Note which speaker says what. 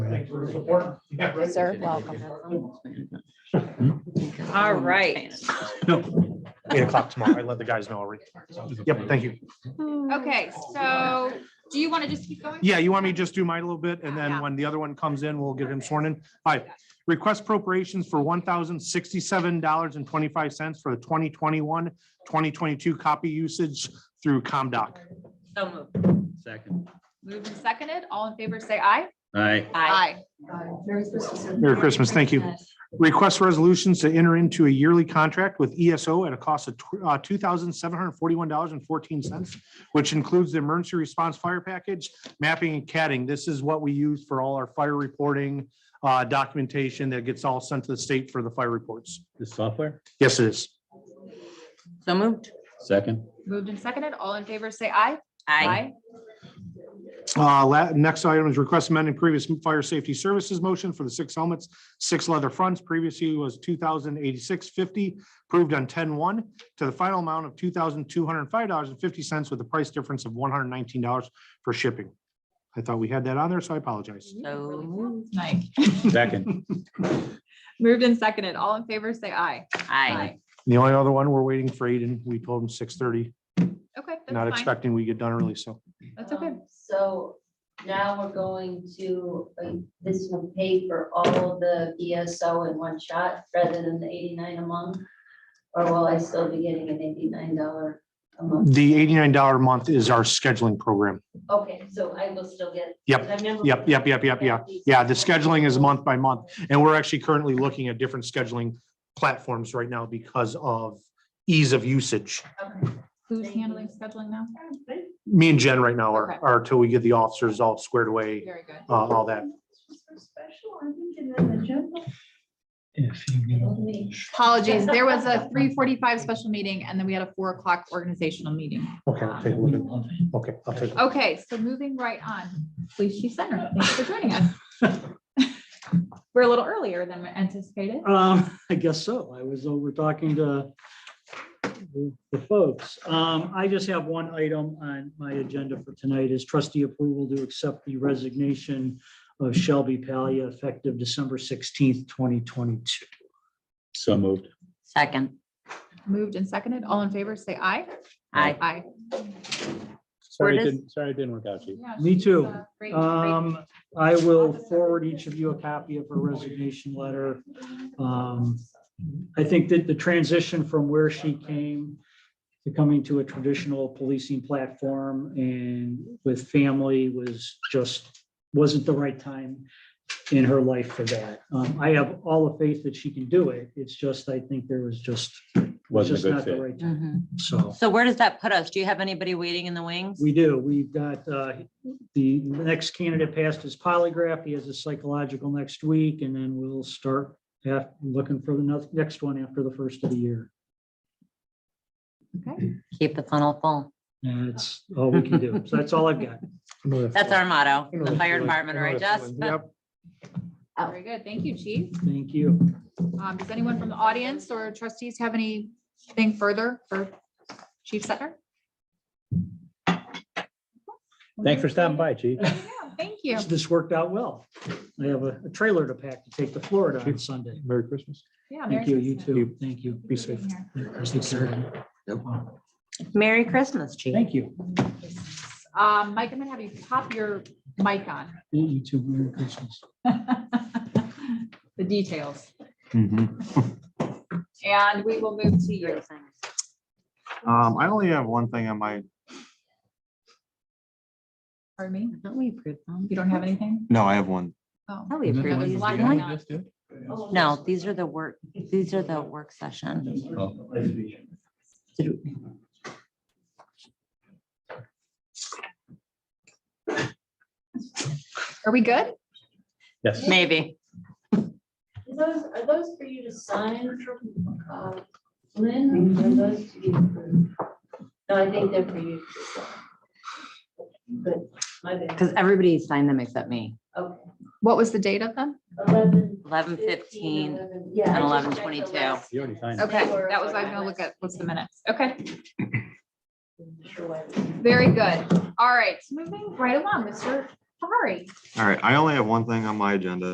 Speaker 1: for your support. Yeah, right.
Speaker 2: Sir, welcome.
Speaker 3: All right.
Speaker 1: Eight o'clock tomorrow. I let the guys know already. Yep, thank you.
Speaker 3: Okay, so do you want to just keep going?
Speaker 1: Yeah, you want me to just do mine a little bit and then
Speaker 3: Yeah.
Speaker 1: when the other one comes in, we'll get him sworn in. All right. Request appropriations for one thousand sixty-seven dollars and twenty-five cents for the 2021-2022 copy usage through ComDoc.
Speaker 3: So moved.
Speaker 4: Second.
Speaker 3: Moved and seconded. All in favor, say aye.
Speaker 4: Aye.
Speaker 3: Aye.
Speaker 1: Merry Christmas. Thank you. Request resolutions to enter into a yearly contract with ESO at a cost of uh, two thousand seven hundred forty-one dollars and fourteen cents, which includes the emergency response fire package, mapping and catting. This is what we use for all our fire reporting uh, documentation that gets all sent to the state for the fire reports.
Speaker 4: The software?
Speaker 1: Yes, it is.
Speaker 5: So moved.
Speaker 4: Second.
Speaker 3: Moved and seconded. All in favor, say aye.
Speaker 1: Uh, la- Next item is request amending previous fire safety services motion for the six helmets, six leather fronts. Previously was two thousand eighty-six fifty, approved on 10-1 to the final amount of two thousand two hundred and five dollars and fifty cents with a price difference of one hundred and nineteen dollars for shipping. I thought we had that on there, so I apologize.
Speaker 5: So moved.
Speaker 3: Aye.
Speaker 4: Second.
Speaker 3: Moved and seconded. All in favor, say aye.
Speaker 5: Aye.
Speaker 1: The only other one, we're waiting for Aiden. We told him six thirty,
Speaker 3: Okay,
Speaker 1: not
Speaker 3: that's fine.
Speaker 1: expecting we get done early, so.
Speaker 3: That's okay.
Speaker 6: Um, So now we're going to, uh, this will pay for all of the ESO in one shot rather than the eighty-nine a month? Or will I still be getting an eighty-nine dollar a month?
Speaker 1: The eighty-nine dollar a month is our scheduling program.
Speaker 6: Okay, so I will still get.
Speaker 1: Yep,
Speaker 6: I remember-
Speaker 1: Yep, yep, yep, yep, yeah. Yeah, the scheduling is month by month, and we're actually currently looking at different scheduling platforms right now because of ease of usage.
Speaker 6: Okay.
Speaker 3: Who's handling scheduling now?
Speaker 1: Me and Jen right now
Speaker 3: Okay.
Speaker 1: are, are till we get the officers all squared away,
Speaker 3: Very good.
Speaker 1: uh, all that.
Speaker 3: Apologies. There was a three forty-five special meeting and then we had a four o'clock organizational meeting.
Speaker 1: Okay, I'll take a look at, okay, I'll take.
Speaker 3: Um, Okay, so moving right on, police chief center, thanks for joining us. We're a little earlier than anticipated.
Speaker 7: Um, I guess so. I was over talking to the the folks. Um, I just have one item on my agenda for tonight is trustee approval to accept the resignation of Shelby Palia effective December sixteenth, twenty twenty-two.
Speaker 4: So moved.
Speaker 5: Second.
Speaker 3: Moved and seconded, all in favor, say aye.
Speaker 5: Aye.
Speaker 3: Aye.
Speaker 4: Sorry,
Speaker 5: Where
Speaker 4: it
Speaker 5: does-
Speaker 4: didn't, sorry, it didn't work out, Chief.
Speaker 7: Me too.
Speaker 3: uh,
Speaker 7: Um, I will forward each of you a copy of her resignation letter. Um, I think that the transition from where she came to coming to a traditional policing platform and with family was just, wasn't the right time in her life for that. Um, I have all the faith that she can do it. It's just, I think there was just, was
Speaker 4: Wasn't a
Speaker 7: just
Speaker 4: good
Speaker 7: not
Speaker 4: fit.
Speaker 7: the right time.
Speaker 5: Mhm.
Speaker 7: So.
Speaker 5: So where does that put us? Do you have anybody waiting in the wings?
Speaker 7: We do. We've got, uh, the next candidate passed his polygraph. He has a psychological next week, and then we'll start af- looking for the next- next one after the first of the year.
Speaker 5: Keep the funnel full.
Speaker 7: And that's all we can do. So that's all I've got.
Speaker 5: That's our motto, in the fire department, right, Jess?
Speaker 1: Yep,
Speaker 3: Oh. Very good, thank you, chief.
Speaker 7: Thank you.
Speaker 3: Um, does anyone from the audience or trustees have anything further for Chief Center?
Speaker 4: Thanks for stopping by, Chief.
Speaker 3: Thank you.
Speaker 7: This worked out well. I have a a trailer to pack to take to Florida on Sunday.
Speaker 1: Merry Christmas.
Speaker 3: Yeah, Merry
Speaker 7: Thank you, you
Speaker 3: Christmas.
Speaker 7: too. Thank you.
Speaker 1: Be safe.
Speaker 5: Merry Christmas, Chief.
Speaker 7: Thank you.
Speaker 3: Um, Mike, I'm gonna have you pop your mic on.
Speaker 7: You too. Merry Christmas.
Speaker 3: The details.
Speaker 1: Mm-hmm.
Speaker 3: And we will move to you.
Speaker 1: Um, I only have one thing on my,
Speaker 3: Pardon me?
Speaker 5: Don't we approve them?
Speaker 3: You don't have anything?
Speaker 8: No, I have one.
Speaker 3: Oh.
Speaker 5: Oh, we approve
Speaker 3: There's a
Speaker 5: these,
Speaker 3: lot
Speaker 5: don't
Speaker 3: going
Speaker 5: we?
Speaker 3: on.
Speaker 5: No, these are the work, these are the work session. Did we-
Speaker 3: Are we good?
Speaker 4: Yes.
Speaker 5: Maybe.
Speaker 6: Are Those, are those for you to sign from, uh, Lynn, or are those to be approved? No, I think they're for you to sign. Good, my bad,
Speaker 5: Because everybody signed them except me.
Speaker 6: okay.
Speaker 3: What was the date of them?
Speaker 6: Eleven.
Speaker 5: 11:15
Speaker 6: 11, yeah, I
Speaker 5: and
Speaker 6: just checked the
Speaker 5: 11:22.
Speaker 6: last
Speaker 4: You already signed it.
Speaker 3: Okay,
Speaker 6: They were
Speaker 3: that was,
Speaker 6: on
Speaker 3: I'm
Speaker 6: my
Speaker 3: gonna look
Speaker 6: list.
Speaker 3: at, what's the minutes? Okay,
Speaker 6: one. Sure.
Speaker 3: very good. All right, moving right along, Mr.
Speaker 9: Sorry.
Speaker 1: All right, I only have one thing on my agenda.